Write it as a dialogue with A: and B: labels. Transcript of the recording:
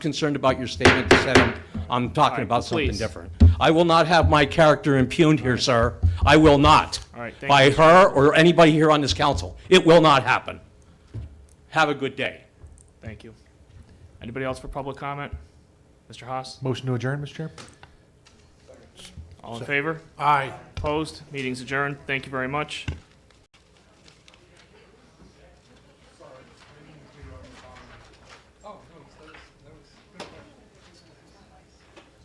A: concerned about your statement that said I'm, I'm talking about something
B: please.
A: different. I will not have my character impugned here, sir. I will not.
B: All right, thank
A: By
B: you.
A: her or anybody here on this council. It will not happen. Have a good day.
B: Thank you. Anybody else for public comment? Mr. Haas,
C: Motion to adjourn, Mr. Chair?
B: all in favor?
C: Aye.
B: Opposed? Meeting's adjourned. Thank you very much.